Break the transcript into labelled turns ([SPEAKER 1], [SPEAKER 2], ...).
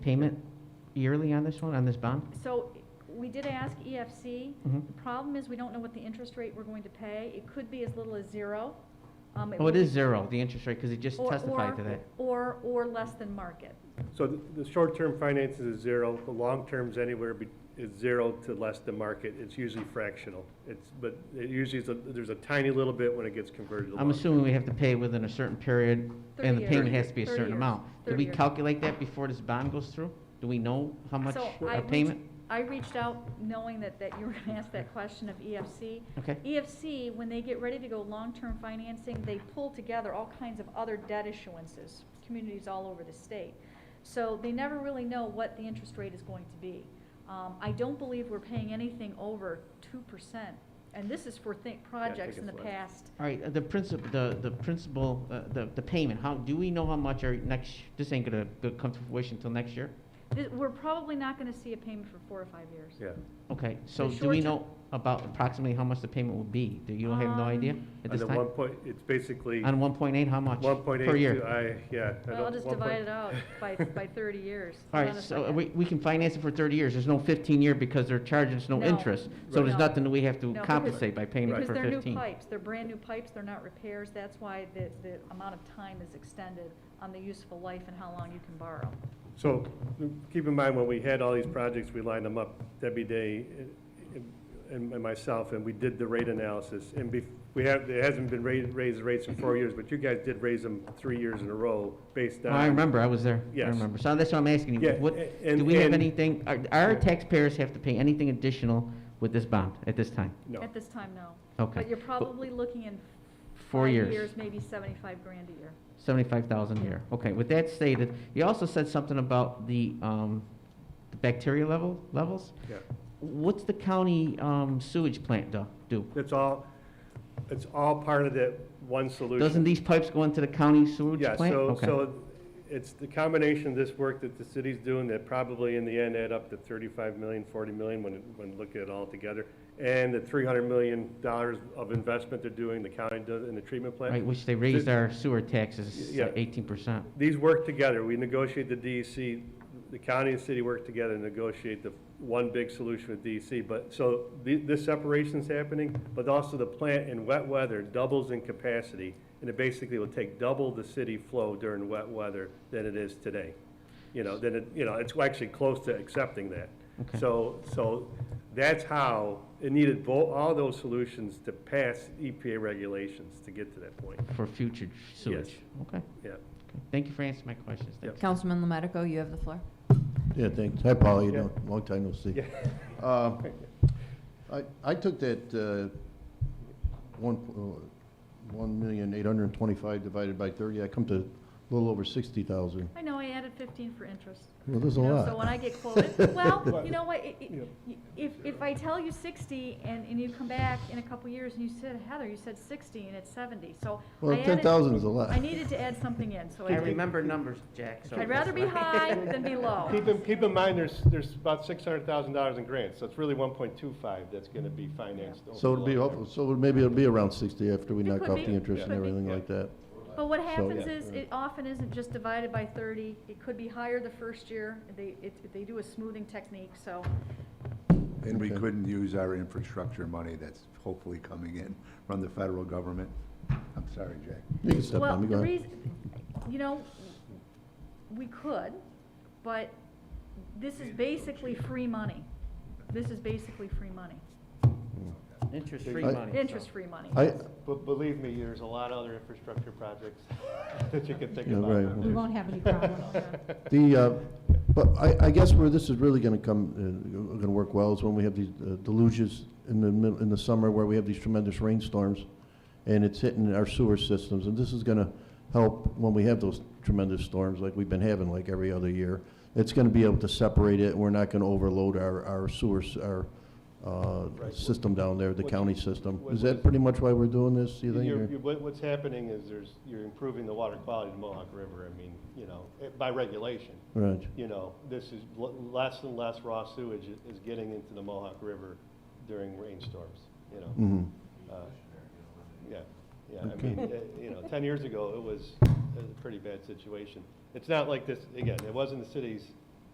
[SPEAKER 1] payment yearly on this one, on this bond?
[SPEAKER 2] So we did ask EFC.
[SPEAKER 1] Mhm.
[SPEAKER 2] The problem is, we don't know what the interest rate we're going to pay. It could be as little as zero. Um,
[SPEAKER 1] Oh, it
[SPEAKER 2] will
[SPEAKER 1] is
[SPEAKER 2] be-
[SPEAKER 1] zero, the interest rate, because he just
[SPEAKER 2] or-
[SPEAKER 1] testified
[SPEAKER 2] or-
[SPEAKER 1] to that.
[SPEAKER 2] Or, or less than market.
[SPEAKER 3] So th- the short-term finances is zero, the long-term's anywhere be, is zero to less than market, it's usually fractional. It's, but it usually is, a- there's a tiny little bit when it gets converted to
[SPEAKER 1] I'm
[SPEAKER 3] long.
[SPEAKER 1] assuming we have to pay within a certain period, and
[SPEAKER 2] 30
[SPEAKER 1] the payment
[SPEAKER 2] years.
[SPEAKER 1] has to be a
[SPEAKER 2] 30
[SPEAKER 1] certain
[SPEAKER 2] years.
[SPEAKER 1] amount. Do
[SPEAKER 2] 30
[SPEAKER 1] we
[SPEAKER 2] years.
[SPEAKER 1] calculate that before this bond goes through? Do we know how much
[SPEAKER 2] So I
[SPEAKER 1] a
[SPEAKER 2] reached-
[SPEAKER 1] payment?
[SPEAKER 2] I reached out knowing that, that you were gonna ask that question of E EFC.
[SPEAKER 1] Okay.
[SPEAKER 2] EFC, E when they get ready to go long-term financing, they pull together all kinds of other debt issuances, communities all over the state. So they never really know what the interest rate is going to be. Um, I don't believe we're paying anything over two percent, and this is for think, projects in the
[SPEAKER 3] it's less.
[SPEAKER 2] past.
[SPEAKER 1] All right, uh, the principal, the, the principal, uh, the, the payment, how, do we know how much our next, this ain't gonna go- come to fruition until next year?
[SPEAKER 2] Th- We're probably not gonna see a payment for four or five years.
[SPEAKER 3] Yeah.
[SPEAKER 1] Okay, so
[SPEAKER 2] The
[SPEAKER 1] do we
[SPEAKER 2] short-term-
[SPEAKER 1] know about approximately how much the payment will be? Do you have no idea
[SPEAKER 2] Um,
[SPEAKER 1] at
[SPEAKER 3] On
[SPEAKER 1] this
[SPEAKER 3] the one
[SPEAKER 1] time?
[SPEAKER 3] point, it's basically
[SPEAKER 1] On one point eight, how much?
[SPEAKER 3] one point eight
[SPEAKER 1] Per
[SPEAKER 3] two,
[SPEAKER 1] year?
[SPEAKER 3] I, yeah. I
[SPEAKER 2] Well, I'll
[SPEAKER 3] don't-
[SPEAKER 2] just
[SPEAKER 3] one point-
[SPEAKER 2] divide it out by, by thirty years.
[SPEAKER 1] All
[SPEAKER 2] Hold
[SPEAKER 1] right,
[SPEAKER 2] on a
[SPEAKER 1] so uh,
[SPEAKER 2] second.
[SPEAKER 1] we, we can finance it for thirty years, there's no fifteen year because they're charging us no
[SPEAKER 2] No.
[SPEAKER 1] interest. So
[SPEAKER 3] Right.
[SPEAKER 1] there's
[SPEAKER 2] No.
[SPEAKER 1] nothing that we have to
[SPEAKER 2] No, because-
[SPEAKER 1] compensate by paying it
[SPEAKER 2] Because
[SPEAKER 1] for
[SPEAKER 2] they're new
[SPEAKER 1] fifteen.
[SPEAKER 2] pipes, they're brand-new pipes, they're not repairs, that's why the, the amount of time is extended on the useful life and how long you can borrow.
[SPEAKER 3] So keep in mind, when we had all these projects, we lined them up, Debbie Day eh, and- and and myself, and we did the rate analysis. And bef- we have, it hasn't been ra- raised rates in four years, but you guys did raise them three years in a row based on.
[SPEAKER 1] I remember, I was there, I
[SPEAKER 3] Yes.
[SPEAKER 1] remember, so that's what I'm asking you,
[SPEAKER 3] Yeah,
[SPEAKER 1] what,
[SPEAKER 3] a-
[SPEAKER 1] do we have
[SPEAKER 3] and-
[SPEAKER 1] anything, are, our taxpayers have to pay anything additional with this bond at this time?
[SPEAKER 3] No.
[SPEAKER 2] At this time, no.
[SPEAKER 1] Okay.
[SPEAKER 2] But you're probably looking in
[SPEAKER 1] Four
[SPEAKER 2] five
[SPEAKER 1] years.
[SPEAKER 2] years, maybe seventy-five grand a year.
[SPEAKER 1] Seventy-five thousand a
[SPEAKER 2] Yeah.
[SPEAKER 1] year. Okay, with that stated, you also said something about the, um, the bacteria level, levels?
[SPEAKER 3] Yeah.
[SPEAKER 1] What's the county, um, sewage plant do, do?
[SPEAKER 3] It's all, it's all part of that one solution.
[SPEAKER 1] Doesn't these pipes go into the county sewage
[SPEAKER 3] Yeah,
[SPEAKER 1] plant?
[SPEAKER 3] so,
[SPEAKER 1] Okay.
[SPEAKER 3] so it's the combination of this work that the city's doing that probably in the end add up to 35 million, 40 million when, it- when look at it all together. And the 300 million dollars of investment they're doing, the county does in the treatment
[SPEAKER 1] Right,
[SPEAKER 3] plant.
[SPEAKER 1] which they raised
[SPEAKER 3] Th-
[SPEAKER 1] our sewer taxes
[SPEAKER 3] Yeah.
[SPEAKER 1] eighteen percent.
[SPEAKER 3] These work together. We negotiate the DEC, the county and city work together and negotiate the one big solution with DEC. But, so the, this separation's happening, but also the plant in wet weather doubles in capacity. And it basically will take double the city flow during wet weather than it is today. you know, then it, you know, it's actually close to accepting that.
[SPEAKER 1] Okay.
[SPEAKER 3] So, so that's how, it needed both, all those solutions to pass EPA regulations to get to that point,
[SPEAKER 1] for future sewage. Okay, okay.
[SPEAKER 3] yeah.
[SPEAKER 1] Thank you for answering my questions.
[SPEAKER 3] Yep.
[SPEAKER 1] Thanks.
[SPEAKER 4] Councilman Lomarico, you have the floor.
[SPEAKER 5] Yeah, thanks. Hi, Paul, you
[SPEAKER 3] Yeah.
[SPEAKER 5] know, long time no see.
[SPEAKER 3] Yeah.
[SPEAKER 5] Uh, I, I took that uh, one, uh, one million eight hundred and twenty-five divided by thirty, I come to a little over sixty thousand.
[SPEAKER 2] I know, I added fifteen for interest.
[SPEAKER 5] Well, there's a
[SPEAKER 2] You know, So when
[SPEAKER 5] lot.
[SPEAKER 2] I get quoted, well,
[SPEAKER 3] Right.
[SPEAKER 2] you know what, i- i-
[SPEAKER 3] Yeah.
[SPEAKER 2] y- if, if I tell you sixty and, and you come back in a couple years and you said, Heather, you said sixty and it's seventy, so I
[SPEAKER 5] Well,
[SPEAKER 2] added-
[SPEAKER 5] ten thousand is a lot.
[SPEAKER 2] I needed to add something in, so
[SPEAKER 1] I
[SPEAKER 2] I did.
[SPEAKER 1] remember numbers, Jack, so.
[SPEAKER 2] I'd rather be high than be low.
[SPEAKER 3] Keep in, keep in mind, there's, there's about six hundred thousand dollars in grants, so it's really one point two five that's gonna be financed. over
[SPEAKER 5] So it'll
[SPEAKER 3] the
[SPEAKER 5] be,
[SPEAKER 3] long
[SPEAKER 5] awful- so maybe it'll be around sixty after we
[SPEAKER 2] It
[SPEAKER 5] knock
[SPEAKER 2] could
[SPEAKER 5] off
[SPEAKER 2] be.
[SPEAKER 5] the interest and
[SPEAKER 2] Could be.
[SPEAKER 5] everything
[SPEAKER 3] Yeah.
[SPEAKER 5] like that.
[SPEAKER 2] But what happens
[SPEAKER 5] yeah.
[SPEAKER 2] is, it often isn't just divided by thirty, it could be higher the first year, they, it, they do a smoothing technique, so.
[SPEAKER 6] And we
[SPEAKER 5] Okay.
[SPEAKER 6] couldn't use our infrastructure money that's hopefully coming in from the federal government. I'm sorry, Jack.
[SPEAKER 5] You can step
[SPEAKER 2] Well,
[SPEAKER 5] on me,
[SPEAKER 2] the
[SPEAKER 5] go ahead.
[SPEAKER 2] reason, you know, we could, but this is basically free money. This is basically free money,
[SPEAKER 1] Interest-free
[SPEAKER 5] I-
[SPEAKER 1] money. so-
[SPEAKER 2] interest-free money.
[SPEAKER 5] I,
[SPEAKER 3] But believe me, there's a lot of other infrastructure projects that you can think
[SPEAKER 5] Yeah,
[SPEAKER 3] about.
[SPEAKER 5] right.
[SPEAKER 4] We won't have any problem.
[SPEAKER 5] The, uh, but I, I guess where this is really gonna come, uh, gonna work well is when we have these uh, deluges in the, mid- in the summer where we have these tremendous rainstorms, and it's hitting our sewer systems, and this is gonna help when we have those tremendous storms like we've been having like every other year. It's gonna be able to separate it, we're not gonna overload our, our sewers, our, uh,
[SPEAKER 3] Right.
[SPEAKER 5] system down there, the
[SPEAKER 3] What-
[SPEAKER 5] county system.
[SPEAKER 3] what-
[SPEAKER 5] Is
[SPEAKER 3] what
[SPEAKER 5] that
[SPEAKER 3] is-
[SPEAKER 5] pretty much why we're doing this, you think?
[SPEAKER 3] You're-
[SPEAKER 5] or-
[SPEAKER 3] you- what- What's happening is there's, you're improving the water quality of the Mohawk River, I mean, you know, eh, by regulation.
[SPEAKER 5] Right.
[SPEAKER 3] You know, this is, l- less and less raw sewage i- is getting into the Mohawk River during rainstorms, you know?
[SPEAKER 5] Mhm.
[SPEAKER 3] Uh, Yeah, yeah, I mean, eh, you know, 10 years ago, it was it was a pretty bad situation. It's not like this, again, it wasn't the city's